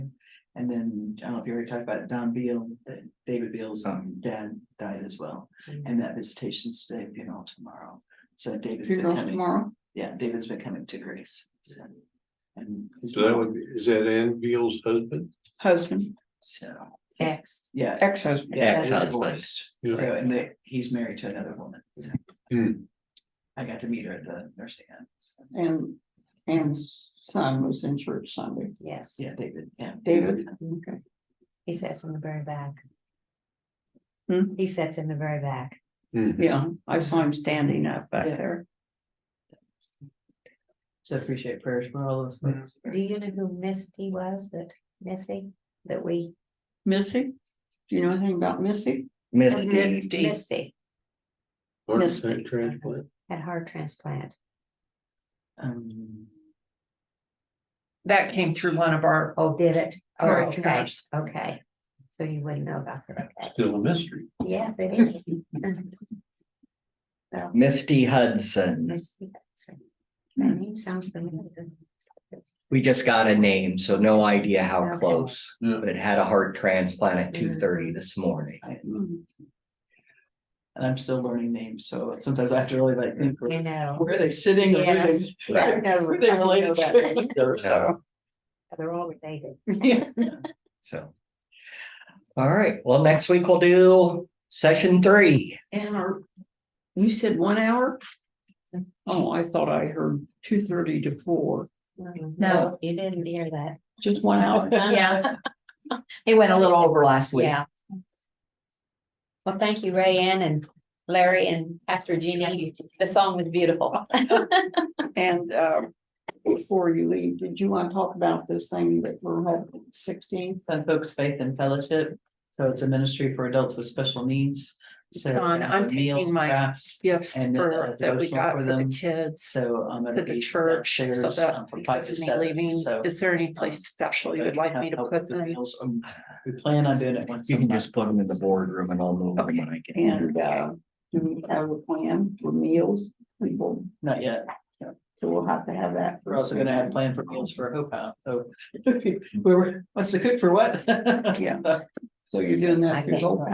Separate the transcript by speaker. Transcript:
Speaker 1: And then, I don't know if you already talked about Don Beal, that David Beal's
Speaker 2: Um.
Speaker 1: dad died as well,
Speaker 3: Mm-hmm.
Speaker 4: Mm.
Speaker 1: and that visitation's today, funeral tomorrow. So David's been
Speaker 3: funerals
Speaker 1: coming,
Speaker 3: tomorrow.
Speaker 1: yeah, David's been coming to Grace, so. And. his
Speaker 5: So that would, be- is that Ann Beal's husband?
Speaker 3: Husband,
Speaker 1: So,
Speaker 4: X.
Speaker 1: yeah.
Speaker 3: ex-husband.
Speaker 1: yeah,
Speaker 2: Ex-
Speaker 1: they're
Speaker 2: ex-husband.
Speaker 1: divorced. So,
Speaker 5: Yeah.
Speaker 1: and they, he's married to another woman, so.
Speaker 5: Hmm.
Speaker 1: I got to meet her at the nursing home, so,
Speaker 3: And, and son was in church Sunday.
Speaker 4: Yes,
Speaker 1: yeah, David, yeah.
Speaker 3: David, okay.
Speaker 4: he sits in the very back.
Speaker 3: Hmm?
Speaker 4: He sits in the very back.
Speaker 3: Yeah, I saw him standing up back
Speaker 1: Yeah.
Speaker 3: there.
Speaker 1: So appreciate prayers for all those folks.
Speaker 4: Do you know who Misty was, that Missy, that we?
Speaker 3: Missy? Do you know anything about Missy?
Speaker 2: Misty,
Speaker 4: Misty
Speaker 5: Heart
Speaker 3: Yes.
Speaker 5: attack transplant?
Speaker 4: had heart transplant.
Speaker 1: Um,
Speaker 6: That came through one of our.
Speaker 4: Oh, did it? Oh,
Speaker 6: Correct.
Speaker 4: okay, okay. So you wouldn't know about that. Okay.
Speaker 5: Still a mystery.
Speaker 4: Yes, it is. Well,
Speaker 2: Misty Hudson.
Speaker 4: Misty, so That name sounds familiar.
Speaker 2: We just got a name, so no idea how
Speaker 4: Okay.
Speaker 2: close,
Speaker 5: Yeah.
Speaker 2: but had a heart transplant at
Speaker 1: Mm.
Speaker 2: two thirty this morning.
Speaker 3: Mm,
Speaker 1: and I'm still learning names, so sometimes I have to really like think.
Speaker 4: You know.
Speaker 1: Where are they sitting? or where
Speaker 4: Yes.
Speaker 1: they- Where they related to?
Speaker 2: So,
Speaker 4: They're all related.
Speaker 2: so. All right, well, next week we'll do session three.
Speaker 3: And our, you said one hour? Oh, I thought I heard two thirty to four,
Speaker 4: No, Mm-hmm. you didn't hear that.
Speaker 3: just one hour.
Speaker 6: Yeah. It went a little over last week.
Speaker 4: Yeah. Well, thank you, Ray Ann and Larry and Pastor Jeannie. The song was beautiful.
Speaker 3: And uh, before you leave, did you want to talk about this thing that we're having sixteen?
Speaker 1: Fun Folks Faith and Fellowship, so it's a ministry for adults with special needs. So uh,
Speaker 6: Don, I'm
Speaker 1: meal
Speaker 6: taking my
Speaker 1: crafts.
Speaker 6: Gifts
Speaker 1: And, uh,
Speaker 6: for, that we
Speaker 1: devotional
Speaker 6: got
Speaker 1: for
Speaker 6: for
Speaker 1: them.
Speaker 6: the kids,
Speaker 1: So, um. it'll
Speaker 6: for the
Speaker 1: be
Speaker 6: church, so
Speaker 1: upstairs,
Speaker 6: that
Speaker 1: um, from five
Speaker 6: because
Speaker 1: to
Speaker 6: of me
Speaker 1: seven,
Speaker 6: leaving,
Speaker 1: so- um,
Speaker 6: is there any place special you would like me to
Speaker 1: Help
Speaker 6: put
Speaker 1: with the
Speaker 6: them?
Speaker 1: meals, um, We plan on doing it once.
Speaker 2: You
Speaker 1: a
Speaker 2: can
Speaker 1: month.
Speaker 2: just put them in the boardroom and I'll move them when I get.
Speaker 3: And uh, do we have a plan for meals? We will,
Speaker 1: Not yet.
Speaker 3: so we'll have to have that.
Speaker 1: We're also gonna have a plan for meals for Hope House, so. We were, wants to cook for what?
Speaker 3: Yeah.
Speaker 1: So-
Speaker 3: So you're doing
Speaker 4: I
Speaker 3: that through
Speaker 4: think-
Speaker 3: Hope